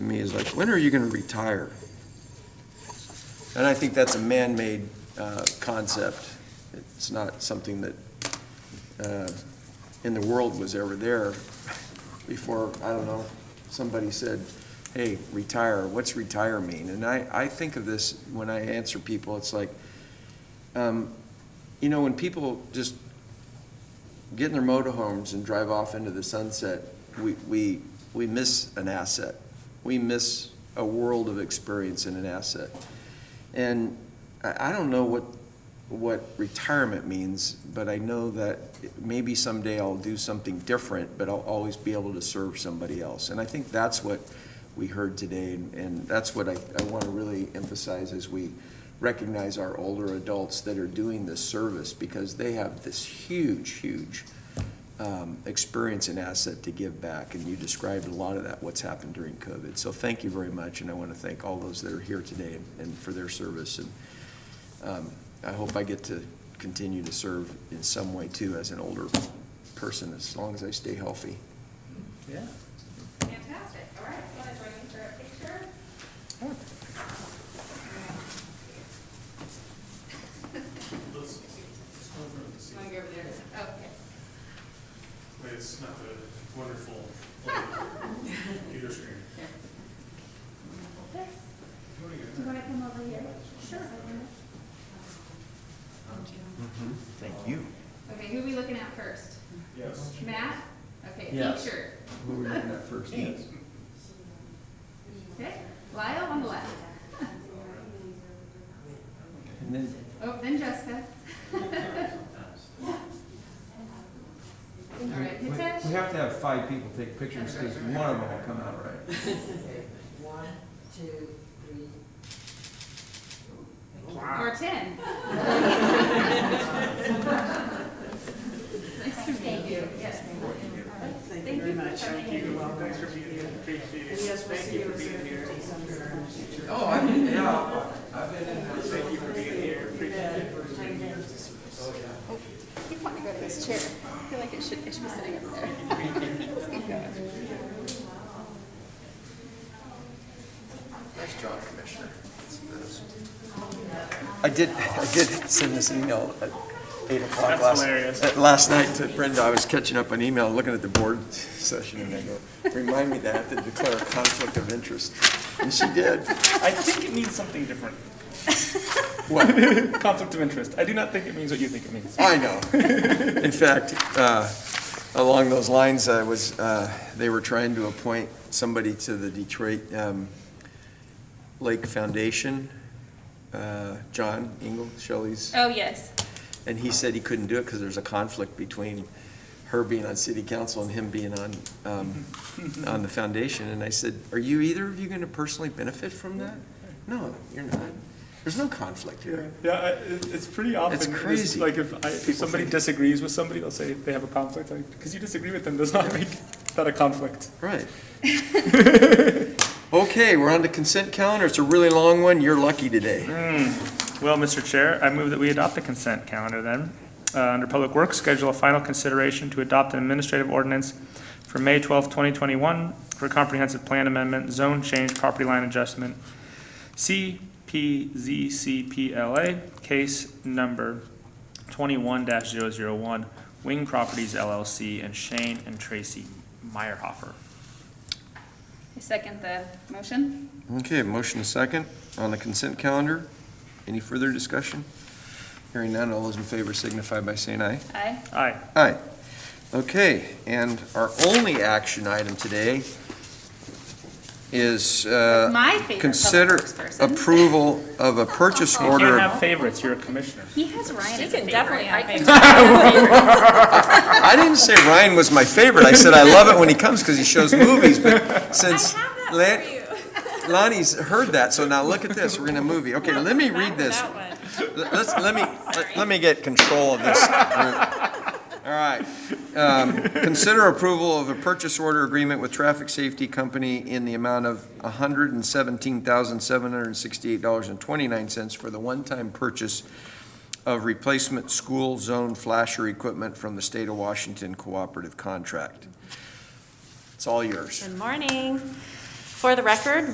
is like, when are you going to retire? And I think that's a man-made uh, concept. It's not something that uh, in the world was ever there before, I don't know, somebody said, hey, retire, what's retire mean? And I, I think of this when I answer people, it's like, um, you know, when people just get in their motorhomes and drive off into the sunset, we, we, we miss an asset. We miss a world of experience in an asset. And I, I don't know what, what retirement means, but I know that maybe someday I'll do something different, but I'll always be able to serve somebody else. And I think that's what we heard today, and, and that's what I, I want to really emphasize as we recognize our older adults that are doing this service, because they have this huge, huge um, experience and asset to give back, and you described a lot of that, what's happened during COVID. So thank you very much, and I want to thank all those that are here today and- and for their service. And um, I hope I get to continue to serve in some way too as an older person, as long as I stay healthy. Yeah. Fantastic, all right, want to join me for a picture? Want to go over there? Okay. Wait, it's not the wonderful like, computer screen. You want to come over here? Sure. Thank you. Okay, who are we looking at first? Yes. Matt? Okay, Yes. picture. Who were you looking at first? Okay, Lyle on the left. And then, Oh, then Jessica. All We right, we- Hitesh? we have to have five people take pictures because one of them will come out right. Okay, one, two, three. Or ten. Nice to meet you. Yes. Thank you very much. Thank you. Thanks for being here. Appreciate it. And yes, we'll Thank see you you for as being here. oh, I, yeah, I've been in Thank you for being here. Appreciate it. You want to go to this chair. I feel like it should, it should be sitting up there. Let's keep going. Nice job, Commissioner. I did, I did send this email at eight o'clock That's last, hilarious. uh, last night to Brenda. I was catching up on email, looking at the board session, and I go, remind me that I have to declare a conflict of interest. And she did. I think it means something different. What? Conflict of interest. I do not think it means what you think it means. I know. In fact, uh, along those lines, I was, uh, they were trying to appoint somebody to the Detroit um, Lake Foundation, uh, John Engel, Shelley's, Oh, yes. and he said he couldn't do it because there's a conflict between her being on city council and him being on, um, on the foundation. And I said, are you, either of you going to personally benefit from that? No, you're not. There's no conflict here. Yeah, I, it- it's pretty often. crazy. Like if, I, if People somebody think- disagrees with somebody, they'll say they have a conflict. Because you disagree with them does not make that a conflict. Right. Okay, we're on to consent calendar. It's a really long one. You're lucky today. Well, Mr. Chair, I move that we adopt the consent calendar then. Uh, Under Public Works, schedule a final consideration to adopt an administrative ordinance for May 12, 2021 for comprehensive plan amendment, zone change, property line adjustment, CPZCPLA, case number 21-001, Wing Properties LLC, and Shane and Tracy Meyerhofer. I second the motion. Okay, motion and second on the consent calendar. Any further discussion? Hearing none, all those in favor signify by saying aye. Aye. Aye. Aye. Okay, and our only action item today is uh, My favorite public consider works person. approval of a purchase You can't order. have favorites, you're a commissioner. He has Ryan She as a can definitely favorite. have I- I didn't say Ryan was my favorite. I said I love it when he comes because he shows movies, but since. Lan- Lonnie's heard that, so now look at this, we're in a movie. Okay, let me read this. L- Let's, let me, let- let me get control of this group. All right. Um, Consider approval of a purchase order agreement with Traffic Safety Company in the amount of $117,768.29 for the one-time purchase of replacement school zone flasher equipment from the state of Washington cooperative contract. It's all yours. Good morning. For the record,